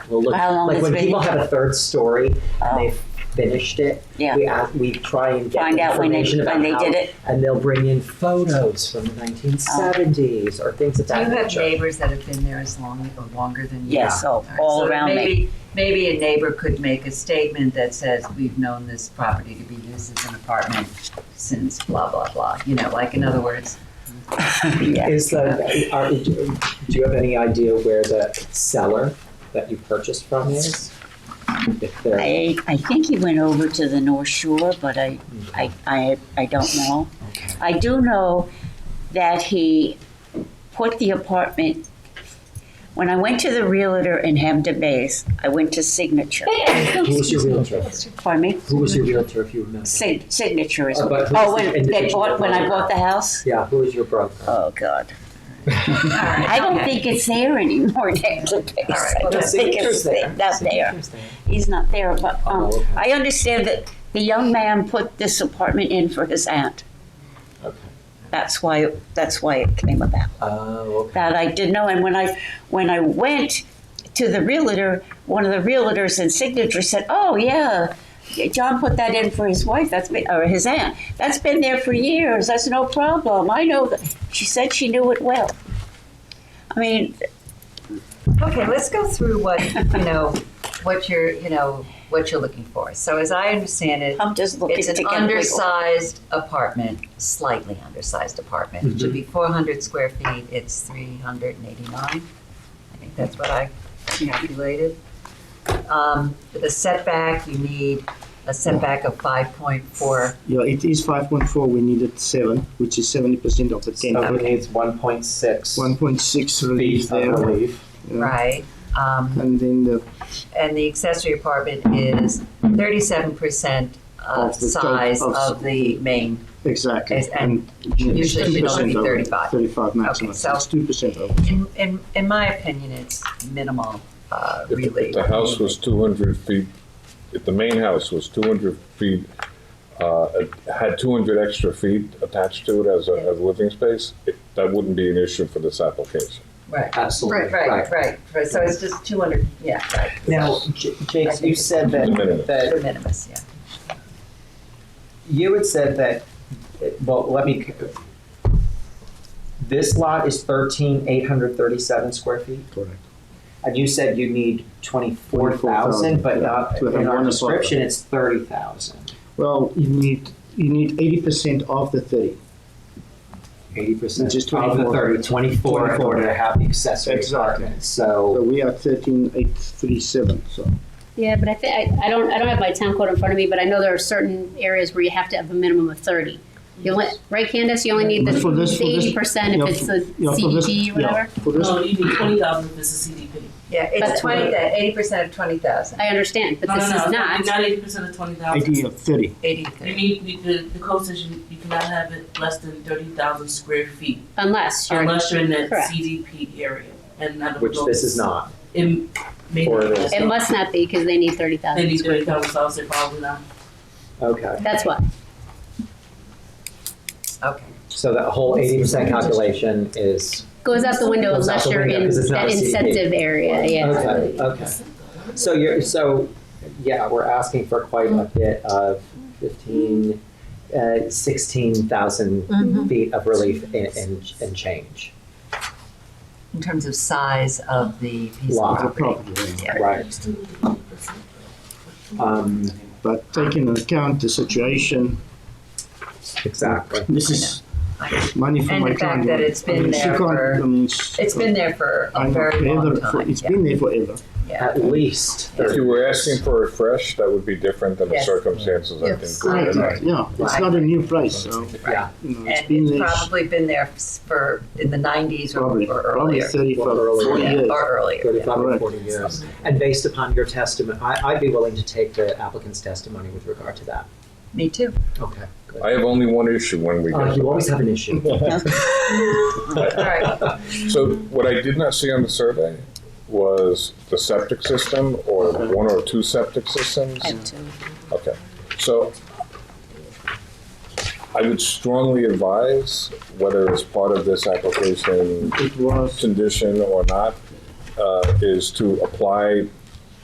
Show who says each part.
Speaker 1: we'll look.
Speaker 2: How long
Speaker 1: like
Speaker 2: it's
Speaker 1: when
Speaker 2: been-
Speaker 1: people have a third story
Speaker 2: Oh.
Speaker 1: and they've finished it,
Speaker 2: Yeah.
Speaker 1: we ask, we try and get
Speaker 2: Find out when they-
Speaker 1: information about
Speaker 2: when they
Speaker 1: how,
Speaker 2: did it.
Speaker 1: and they'll bring in photos from the 1970s or things of
Speaker 3: Do you
Speaker 1: that
Speaker 3: have
Speaker 1: nature.
Speaker 3: neighbors that have been there as long or longer than you?
Speaker 2: Yes, so
Speaker 3: right,
Speaker 2: all
Speaker 3: so
Speaker 2: around me.
Speaker 3: maybe- Maybe a neighbor could make a statement that says, we've known this property to be used as an apartment since blah, blah, blah. You know, like in other words,
Speaker 2: Yeah.
Speaker 1: Is the uh, are, do you have any idea where the seller that you purchased from is? If they're-
Speaker 2: I, I think he went over to the North Shore, but I, I, I, I don't know.
Speaker 1: Okay.
Speaker 2: I do know that he put the apartment, when I went to the realtor in Hampton Bays, I went to Signature.
Speaker 1: Who was your realtor?
Speaker 2: Pardon me?
Speaker 1: Who was your realtor, if you remember?
Speaker 2: Sig- Signature is,
Speaker 1: Uh, but who's
Speaker 2: oh,
Speaker 1: the
Speaker 2: when they
Speaker 1: individual
Speaker 2: bought, when I
Speaker 1: broker?
Speaker 2: bought the house?
Speaker 1: Yeah, who was your broker?
Speaker 2: Oh, God.
Speaker 3: all right.
Speaker 2: I don't
Speaker 3: okay.
Speaker 2: think it's there anymore in Hampton Bays.
Speaker 3: All right,
Speaker 2: I
Speaker 3: well,
Speaker 2: don't
Speaker 1: the
Speaker 2: think it's
Speaker 1: Signature's there.
Speaker 2: not there. He's not there, but um,
Speaker 1: Oh, okay.
Speaker 2: I understand that the young man put this apartment in for his aunt.
Speaker 1: Okay.
Speaker 2: That's why that's why it came about.
Speaker 1: Oh, okay.
Speaker 2: That I didn't know. And when I when I went to the realtor, one of the realtors in signature said, "Oh yeah." John put that in for his wife. That's been, or his aunt. That's been there for years. That's no problem. I know that. She said she knew it well. I mean,
Speaker 3: Okay, let's go through what, you know, what you're, you know, what you're looking for. So as I understand it,
Speaker 2: I'm just looking
Speaker 3: it's
Speaker 2: to
Speaker 3: an
Speaker 2: get legal.
Speaker 3: undersized apartment, slightly undersized apartment. It should be
Speaker 4: Mm-hmm.
Speaker 3: 400 square feet, it's 389. I think that's what I calculated. Um, For the setback, you need a setback of 5.4.
Speaker 4: Yeah, it is five point four, we needed seven, which is seventy percent of the ten.
Speaker 1: So it needs 1.6
Speaker 4: One point six relief
Speaker 1: feet of
Speaker 4: there.
Speaker 1: relief.
Speaker 4: yeah.
Speaker 3: Right. Um,
Speaker 4: And then the,
Speaker 3: And the accessory apartment is 37% uh,
Speaker 4: Of the tot-
Speaker 3: size
Speaker 4: of-
Speaker 3: of the main
Speaker 4: exactly,
Speaker 3: Yes,
Speaker 4: and.
Speaker 3: usually it should only be 35.
Speaker 4: Thirty-five maximum,
Speaker 3: so-
Speaker 4: it's two percent over.
Speaker 3: In, in, in my opinion, it's minimal uh,
Speaker 5: If- if
Speaker 3: relief.
Speaker 5: The house was two hundred feet, if the main house was two hundred feet, uh, it had two hundred extra feet attached to it as a, as a living space, it- that wouldn't be an issue for this application.
Speaker 3: Right,
Speaker 1: Absolutely.
Speaker 3: right, right, right. Right, So it's just 200, yeah, right,
Speaker 1: Now, J- Jake, you said that,
Speaker 5: The minimum.
Speaker 1: that
Speaker 3: de minimis, yeah.
Speaker 1: you had said that, well, let me, this lot is 13,837 square feet?
Speaker 4: Correct.
Speaker 1: And you said you need 24,000, but
Speaker 4: 24,000, yeah,
Speaker 1: not,
Speaker 4: to have
Speaker 1: in our
Speaker 4: one
Speaker 1: description, it's 30,000.
Speaker 4: Well, you need, you need eighty percent of the thirty,
Speaker 1: 80%
Speaker 4: Which is
Speaker 1: of the
Speaker 4: 24.
Speaker 1: 30, 24 in
Speaker 4: 24.
Speaker 1: order to have the accessory
Speaker 4: Exactly.
Speaker 1: apartment.
Speaker 4: so
Speaker 1: So,
Speaker 4: we are thirteen eight three seven, so.
Speaker 6: Yeah, but I think, I don't, I don't have my town code in front of me, but I know there are certain areas where you have to have a minimum of thirty. You only, right Candace, you only need the
Speaker 4: But for this- for this-
Speaker 6: eighty percent
Speaker 4: yeah,
Speaker 6: if it's the
Speaker 4: yeah, for this-
Speaker 6: CDP or
Speaker 4: yeah,
Speaker 6: whatever.
Speaker 4: For this,
Speaker 7: No, you need twenty thousand if it's a CDP.
Speaker 3: Yeah,
Speaker 6: But-
Speaker 3: it's 20, that 80% of 20,000,
Speaker 6: I understand, but
Speaker 7: No,
Speaker 6: this
Speaker 7: no, no,
Speaker 6: is not.
Speaker 7: Not eighty percent of twenty thousand.
Speaker 4: eighty of thirty,
Speaker 3: 80,
Speaker 7: You need, you- the, the code says you, you cannot have it less than thirty thousand square feet
Speaker 6: Unless you're,
Speaker 7: unless you're in the
Speaker 6: Correct.
Speaker 7: CDP area. And I don't
Speaker 1: which
Speaker 7: know
Speaker 1: this
Speaker 7: if
Speaker 1: is not.
Speaker 7: It may
Speaker 1: Or
Speaker 7: be
Speaker 1: it is.
Speaker 7: less.
Speaker 6: it must not be because they need thirty
Speaker 7: They
Speaker 6: thousand
Speaker 7: need
Speaker 6: square
Speaker 7: thirty
Speaker 6: feet.
Speaker 7: thousand, so I'll say probably not.
Speaker 1: Okay.
Speaker 6: That's why.
Speaker 3: okay.
Speaker 1: So that whole 80% calculation is,
Speaker 6: Goes out the window
Speaker 1: Goes out
Speaker 6: unless
Speaker 1: the
Speaker 6: you're
Speaker 1: window
Speaker 6: in
Speaker 1: 'cause it's not
Speaker 6: that
Speaker 1: a CDP.
Speaker 6: incentive area, yeah.
Speaker 1: okay, okay. So you're, so, yeah, we're asking for quite a bit of fifteen, uh, sixteen thousand feet of relief and, and, and change.
Speaker 3: In terms of size of the piece
Speaker 1: Lot.
Speaker 3: of
Speaker 4: of the
Speaker 3: property.
Speaker 4: property, value.
Speaker 3: Yeah.
Speaker 1: Right. Um,
Speaker 4: but taking into account the situation,
Speaker 1: exactly.
Speaker 4: this is money for
Speaker 3: And
Speaker 4: my
Speaker 3: the fact
Speaker 4: client.
Speaker 3: that it's
Speaker 4: I
Speaker 3: been
Speaker 4: mean, she
Speaker 3: there
Speaker 4: can't-
Speaker 3: for-
Speaker 4: I mean, she
Speaker 3: It's been there for a very long
Speaker 4: forever, for-
Speaker 3: time,
Speaker 4: It's
Speaker 3: yeah,
Speaker 4: been there forever.
Speaker 3: yeah.
Speaker 1: At least
Speaker 5: If
Speaker 1: thirty.
Speaker 5: you were asking for a fresh, that would be different than the
Speaker 3: Yes.
Speaker 5: circumstances, I
Speaker 3: Yes.
Speaker 5: think.
Speaker 3: Right.
Speaker 5: we're in.
Speaker 4: Yeah, it's not a new place, so,
Speaker 1: Yeah,
Speaker 4: you know, it's
Speaker 3: And
Speaker 4: been
Speaker 3: it's
Speaker 4: there
Speaker 3: probably been there for, in the 90s or
Speaker 4: probably,
Speaker 3: or
Speaker 4: probably
Speaker 3: earlier.
Speaker 4: thirty-five,
Speaker 1: Or earlier.
Speaker 4: forty
Speaker 3: Yeah,
Speaker 4: years.
Speaker 3: Or earlier, yeah.
Speaker 1: thirty-five or
Speaker 4: Correct.
Speaker 1: forty years. And based upon your testimony, I, I'd be willing to take the applicant's testimony with regard to that.
Speaker 3: me too.
Speaker 1: Okay, good.
Speaker 5: I have only one issue when we
Speaker 1: Uh,
Speaker 5: get.
Speaker 1: you always have an issue.
Speaker 3: All right,
Speaker 5: So what I did not see on the survey was the septic system or one or two septic systems. Okay, so I would strongly advise, whether it's part of this application
Speaker 4: It was,
Speaker 5: condition or not, uh, is to apply